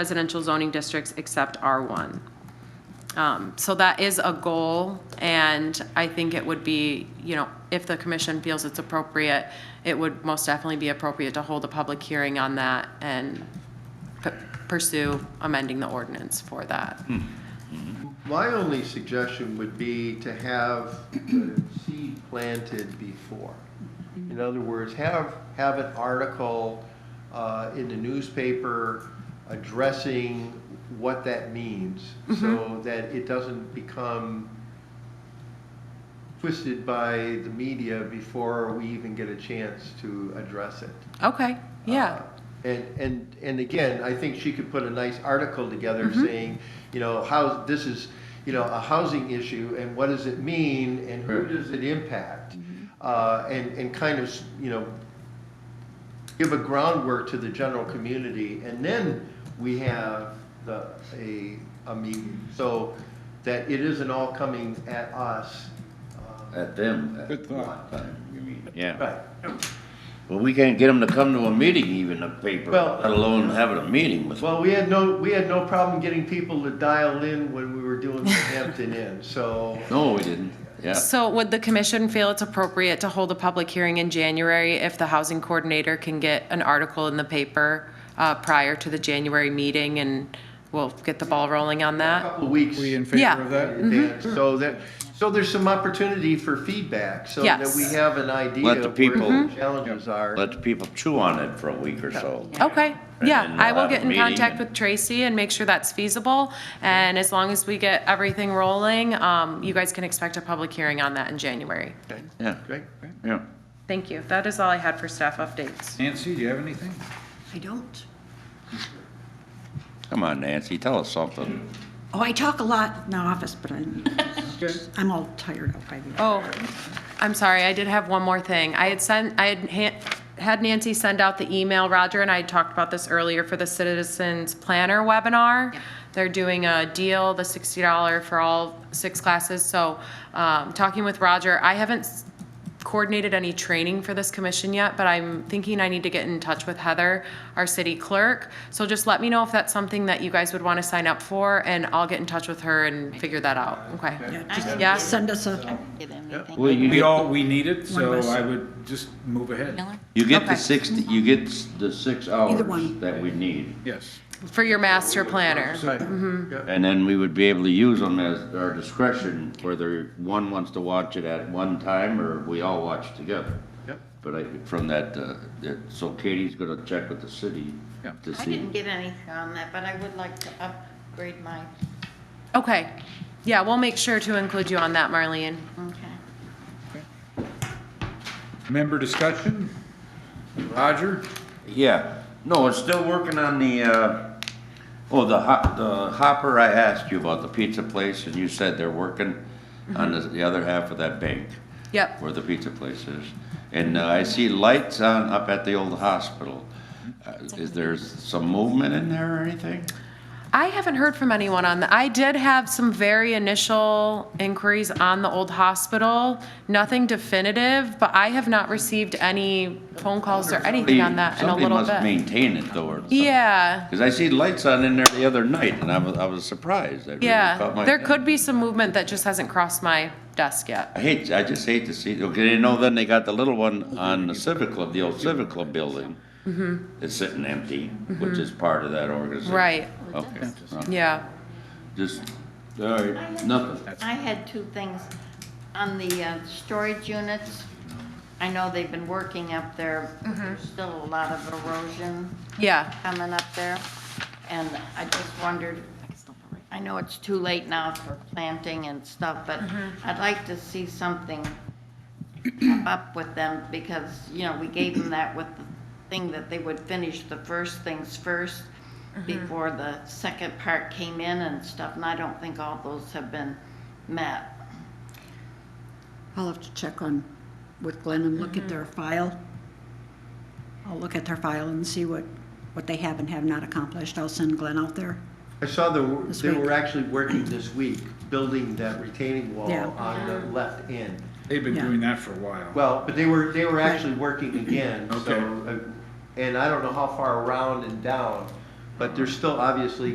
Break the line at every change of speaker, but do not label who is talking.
residential zoning districts except R1. Um, So that is a goal, and I think it would be, you know, if the commission feels it's appropriate, it would most definitely be appropriate to hold a public hearing on that and p- pursue amending the ordinance for that.
My only suggestion would be to have the seed planted before. In other words, have, have an article uh, in the newspaper addressing what that means so that it doesn't become twisted by the media before we even get a chance to address it.
Okay, yeah,
Uh, And, and, and again, I think she could put a nice article together saying, you know, how, this is, you know, a housing issue and what does it mean and who does it impact? Uh, and, and kind of, s- you know, give a groundwork to the general community and then we have the, a, a meeting. So that it isn't all coming at us.
At them. at
Good thought.
one time, You mean, yeah.
Right.
Well, we can't get them to come to a meeting even, a paper,
Well-
let alone having a meeting with.
Well, we had no, we had no problem getting people to dial in when we were doing the Hampton Inn, so.
No, we didn't, yeah.
so would the commission feel it's appropriate to hold a public hearing in January if the housing coordinator can get an article in the paper uh, prior to the January meeting, and we'll get the ball rolling on
a
that?
Couple weeks.
We in
Yeah.
favor of that?
advance,
Mm-hmm.
So that, so there's some opportunity for feedback, so that
Yes.
we have an idea
Let the
of where
people-
Mm-hmm.
the challenges are.
Let the people chew on it for a week or so.
Okay, yeah,
then
I
we'll
will
have
get
a
in
meeting
contact
and-
with Tracy and make sure that's feasible. And as long as we get everything rolling, um, you guys can expect a public hearing on that in January.
Okay,
Yeah,
Great.
yeah.
Thank you. That is all I had for staff updates.
Nancy, do you have anything?
I don't.
Come on, Nancy, tell us something.
Oh, I talk a lot in the office, but I'm,
Okay.
I'm all tired out by the.
Oh, I'm sorry, I did have one more thing. I had sent, I had ha- had Nancy send out the email, Roger and I had talked about this earlier for the Citizens Planner webinar. They're doing a deal, the $60 for all six classes, so, um, talking with Roger, I haven't s- coordinated any training for this commission yet, but I'm thinking I need to get in touch with Heather, our city clerk. So just let me know if that's something that you guys would want to sign up for, and I'll get in touch with her and figure that out, okay?
Just
Yeah.
Send us a,
Give them anything.
Well, you
We
get,
all, we need it, so I would just move ahead.
Miller?
you get
Okay.
the six, you get s- the six hours
one.
that we need.
Yes.
For your master planner.
Mm-hmm.
And then we would be able to use them as our discretion, whether one wants to watch it at one time or we all watch together.
Yep.
But I, from that, uh, that, so Katie's gonna check with the city
Yeah.
to
I
see.
didn't get anything on that, but I would like to upgrade my,
Okay, yeah, we'll make sure to include you on that, Marlene.
okay.
Member discussion? Roger?
Yeah, no, it's still working on the, uh, oh, the hop, the hopper, I asked you about the pizza place and you said they're working on the, the other half of that bank
Mm-hmm. Yep,
where the pizza place is. And uh, I see lights on up at the old hospital. Uh,
Mm-hmm.
Is there some movement in there or anything?
I haven't heard from anyone on that. I did have some very initial inquiries on the old hospital, nothing definitive, but I have not received any phone calls or anything on that in a little
Somebody
bit.
must maintain it though, or something.
Yeah,
Because I see lights on in there the other night, and I was, I was surprised. That really caught
yeah,
my
there
attention.
could be some movement that just hasn't crossed my desk yet.
I hate, I just hate to see, okay, you know, then they got the little one on the Civic Club, the old Civic Club building. It's sitting empty, which is part of that organization.
Mm-hmm. Right,
Okay, no,
yeah.
just, all right, nothing.
I had two things. On the uh, storage units, I know they've been working up there. There's still a lot of erosion
Yeah,
coming up there. And I just wondered, I know it's too late now for planting and stuff, but I'd like to see something come up with them because, you know, we gave them that with the thing that they would finish the first things first before the second part came in and stuff, and I don't think all those have been met.
I'll have to check on with Glenn and look at their file. I'll look at their file and see what, what they have and have not accomplished. I'll send Glenn out there.
I saw the,
This
they
week.
were actually working this week, building that retaining wall
Yeah.
on the left end.
They've been
Yeah.
doing that for a while.
Well, but they were, they were actually working again, so,
Okay.
uh, and I don't know how far around and down, But there's still obviously